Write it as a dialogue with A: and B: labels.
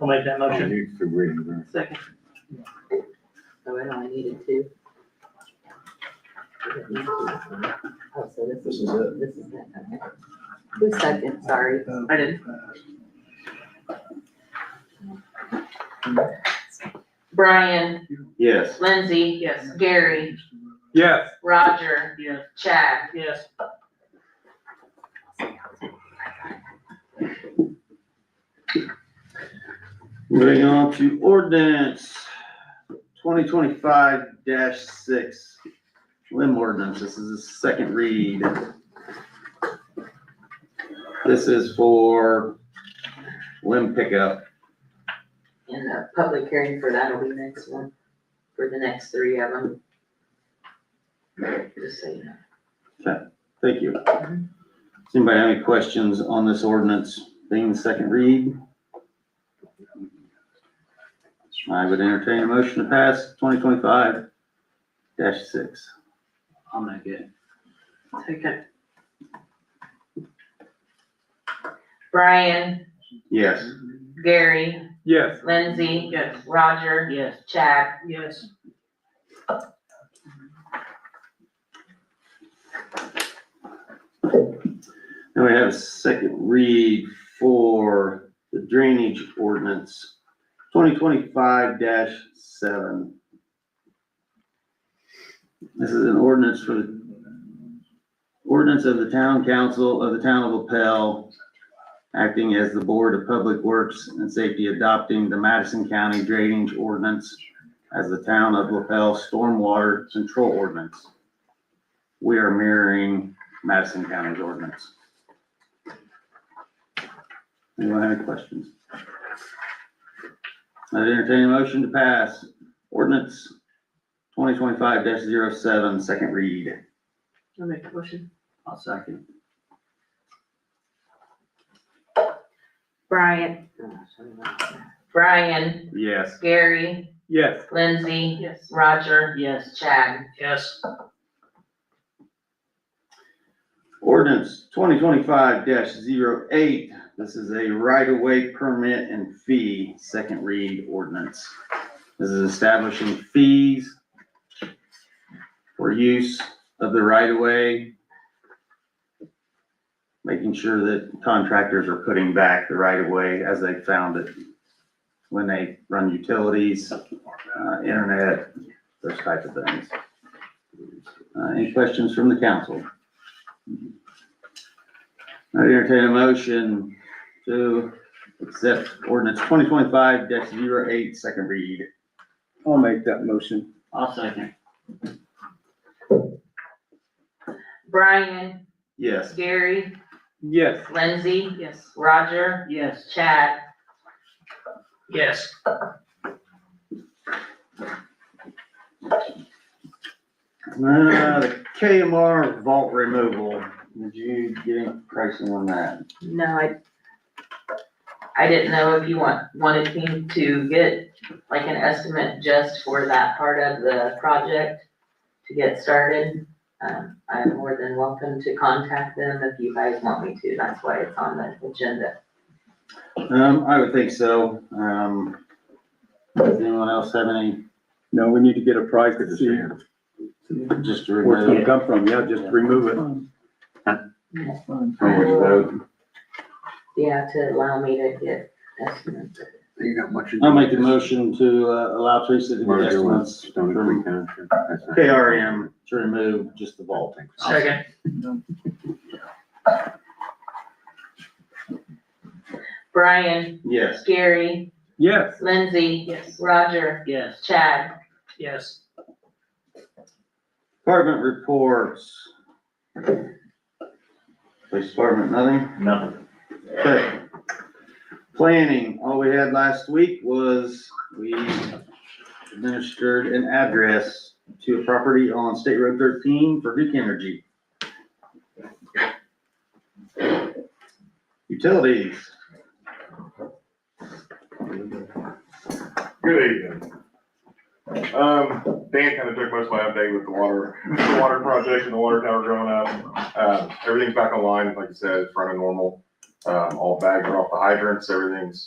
A: I'll make that
B: I
A: motion.
B: need to read it.
C: Second. Oh, I know, I needed two. Oh, so this
D: This
C: is,
D: is it.
C: this is that, okay. Who's second, sorry, I didn't.
E: Brian,
B: Yes.
E: Lindsay,
A: Yes.
E: Gary,
F: Yes.
E: Roger,
A: Yes.
E: Chad.
A: Yes.
B: Moving on to ordinance twenty twenty-five six, limb ordinance, this is the second read. This is for limb pickup.
C: And the public hearing for that'll be next one, for the next three of them. Just so you know.
B: Thank you. Does anybody have any questions on this ordinance being the second read? I would entertain a motion to pass twenty twenty-five six.
D: I'm not good.
C: Second.
E: Brian,
B: Yes.
E: Gary,
F: Yes.
E: Lindsay. Yes. Roger,
A: Yes.
E: Chad.
A: Yes.
B: Then we have a second read for the drainage ordinance, twenty twenty-five seven. This is an ordinance for the, ordinance of the town council of the town of LaPel, acting as the Board of Public Works and Safety adopting the Madison County Drainage Ordinance as the town of LaPel Stormwater Control Ordinance. We are mirroring Madison County's ordinance. Anyone have any questions? I would entertain a motion to pass ordinance twenty twenty-five 7 second read.
C: I'll make a motion.
B: I'll second.
E: Brian, Brian,
B: Yes.
E: Gary,
F: Yes.
E: Lindsay.
A: Yes.
E: Roger,
A: Yes.
E: Chad.
A: Yes.
B: Ordinance twenty twenty-five 8 this is a right-of-way permit and fee, second read ordinance. This is establishing fees for use of the right-of-way. Making sure that contractors are putting back the right-of-way as they found it when they run utilities, uh, internet, those type of things. Uh, any questions from the council? I entertain a motion to accept ordinance twenty twenty-five 8 second read.
D: I'll make that motion.
B: I'll second.
E: Brian,
B: Yes.
E: Gary,
F: Yes.
E: Lindsay,
A: Yes.
E: Roger,
A: Yes.
E: Chad.
A: Yes.
B: Uh, the KMR vault removal, did you get any pricing on that?
E: No, I, I didn't know if you want, wanted me to get like an estimate just for that part of the project to get started. Um, I'm more than welcome to contact them if you guys want me to, that's why it's on the agenda.
B: Um, I would think so, um, does anyone else have any,
D: No, we need to get a price to see
B: just to
D: where it's gonna
B: remove?
D: come from. Yeah, just remove it.
E: Yeah, to allow me to get estimates.
D: You got much.
B: I'll make the motion to, uh, allow Teresa to get estimates from KRM to remove just the vault.
A: Second.
E: Brian,
B: Yes.
E: Gary,
F: Yes.
E: Lindsay.
A: Yes.
E: Roger,
A: Yes.
E: Chad.
A: Yes.
B: Department reports. Police department, nothing?
A: Nothing.
B: Okay. Planning, all we had last week was we administered an address to a property on State Road thirteen for Duke Energy. Utilities,
G: Good evening. Um, Dan kind of took most of my update with the water, the water project and the water tower growing up. Um, everything's back online, like I said, it's running normal. Um, all bags are off the hydrants, everything's